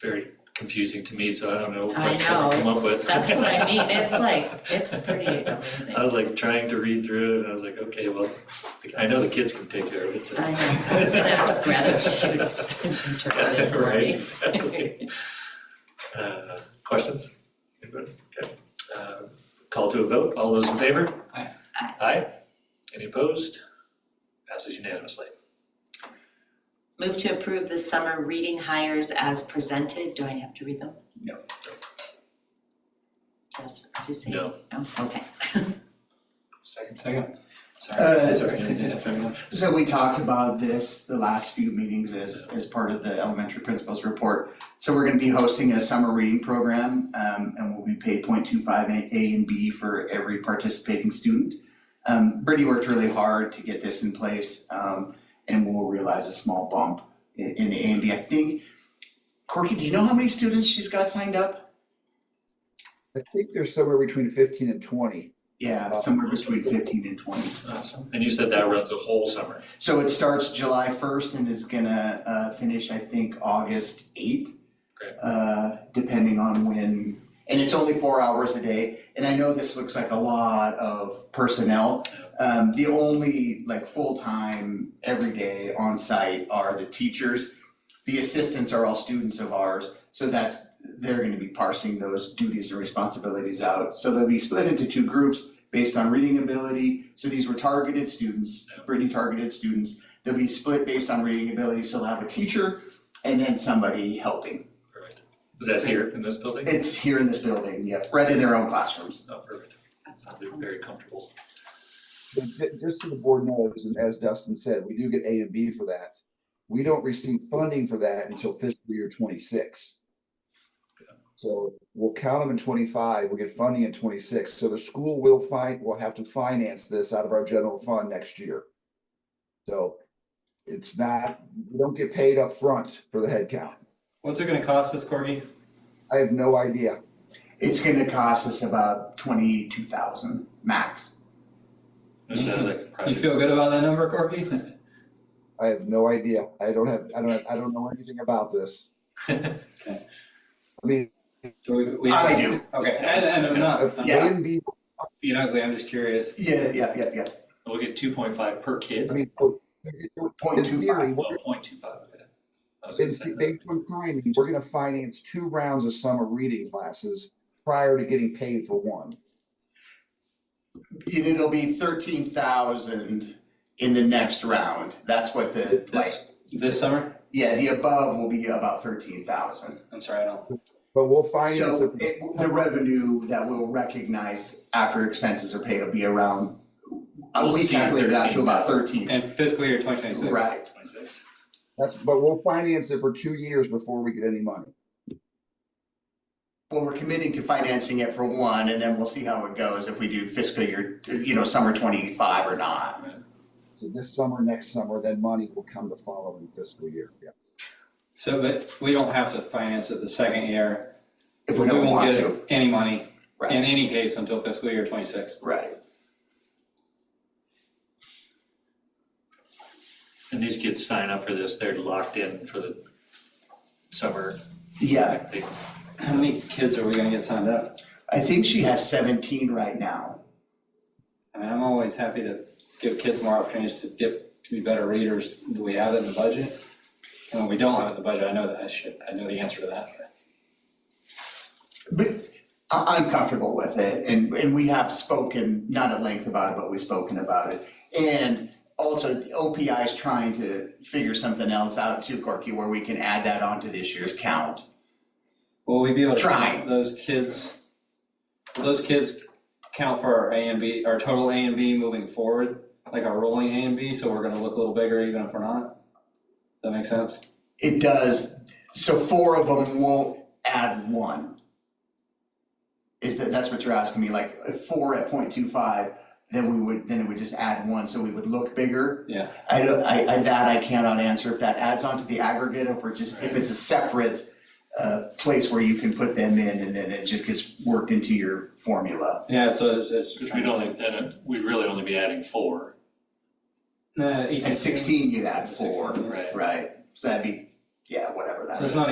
very confusing to me, so I don't know what I else to come know, up with. it's, that's what I mean, it's like, it's pretty amazing. I was like trying to read through it and I was like, okay, well, I know the kids can take care of it, so. I know, that's what I was rather should interpret it for Right, me. exactly. Uh, questions? Anybody? Okay. Uh, Call to a vote, all those in favor? Aye. Aye. Aye. Any opposed? Passes unanimously. Move to approve the summer reading hires as presented, do I have to read them? No. Yes, do you say? No. No, okay. Second, second. Uh, Sorry, sorry, that's fair enough. So we talked about this the last few meetings as, as part of the elementary principals report. So we're gonna be hosting a summer reading program, um, and we'll be paid 0.25 A A and B for every participating student. Um, Brittany worked really hard to get this in place, um, and we'll realize a small bump in, in the A and B. I think, Corky, do you know how many students she's got signed up? I think there's somewhere between fifteen and twenty. Yeah, somewhere between fifteen and twenty. Awesome. And you said that runs a whole summer. So it starts July first and is gonna uh finish, I think, August eighth. Great. Uh, depending on when, and it's only four hours a day, and I know this looks like a lot of personnel. Um, the only like full-time, every day on-site are the teachers. The assistants are all students of ours, so that's, they're gonna be parsing those duties and responsibilities out. So they'll be split into two groups based on reading ability, so these were targeted students, Brittany targeted students. They'll be split based on reading ability, so they'll have a teacher and then somebody helping. Perfect. Is that here in this building? It's here in this building, yep, right in their own classrooms. Oh, perfect. That's They're awesome. very comfortable. But ju- Just so the board knows, and as Dustin said, we do get A and B for that. We don't receive funding for that until fiscal year twenty-six. So we'll count them in twenty-five, we'll get funding in twenty-six, so the school will find, will have to finance this out of our general fund next year. So it's not, we don't get paid up front for the headcount. What's it gonna cost us, Corgi? I have no idea. It's gonna cost us about twenty-two thousand max. Is that like a Uh, You private? feel good about that number, Corgi? I have no idea. I don't have, I don't, I don't know anything about this. I mean, uh, Do we, we? I do. Okay, and, and uh, I'm not, I'm A Uh, Yeah. not and B being ugly, I'm just curious. Yeah, yeah, yeah, yeah. We'll get two point five per kid. I mean, oh, so, in- in- Point in two theory, Well, we're- point two five, okay. I was gonna in- say that. Based on timing, we're gonna finance two rounds of summer reading classes prior to getting paid for one. And it'll be thirteen thousand in the next round. That's what the, like, This, this summer? yeah, the above will be about thirteen thousand. I'm sorry, I don't. But we'll finance So it, it, the revenue that we'll recognize after expenses are paid will be around, uh, We'll we see calculated out to about thirteen. And fiscal year twenty twenty-six. Right, Twenty-six. that's, but we'll finance it for two years before we get any money. well, we're committing to financing it for one, and then we'll see how it goes if we do fiscal year, you know, summer twenty-five or not. So this summer, next summer, then money will come the following fiscal year, yeah. So, but we don't have to finance it the second year. If we don't want We to, won't get any money Right. in any case until fiscal year twenty-six. right, And these kids sign up for this, they're locked in for the summer. yeah, They- How many kids are we gonna get signed up? I think she has seventeen right now. I mean, I'm always happy to give kids more opportunities to get, to be better readers. Do we have it in the budget? And when we don't have it in the budget, I know that, I should, I know the answer to that. But I, I'm comfortable with it, and, and we have spoken, not at length about it, but we've spoken about it. And also, OPI is trying to figure something else out too, Corky, where we can add that onto this year's count. Will we be able to Try. count those kids? Will those kids count for our A and B, our total A and B moving forward? Like our rolling A and B, so we're gonna look a little bigger even if we're not? That makes sense? It does, so four of them won't add one. Is that, that's what you're asking me, like, if four at point two five, then we would, then it would just add one, so we would look bigger. Yeah. I don't, I, I, that I cannot answer, if that adds on to the aggregate, if we're just, if it's a separate uh, place where you can put them in, and then it just gets worked into your formula. Yeah, so it's, it's. Cause we'd only, then we'd really only be adding four, Nah, eighteen. At sixteen, you'd add four, Sixteen, right? right, so that'd be, yeah, whatever that is. So it's not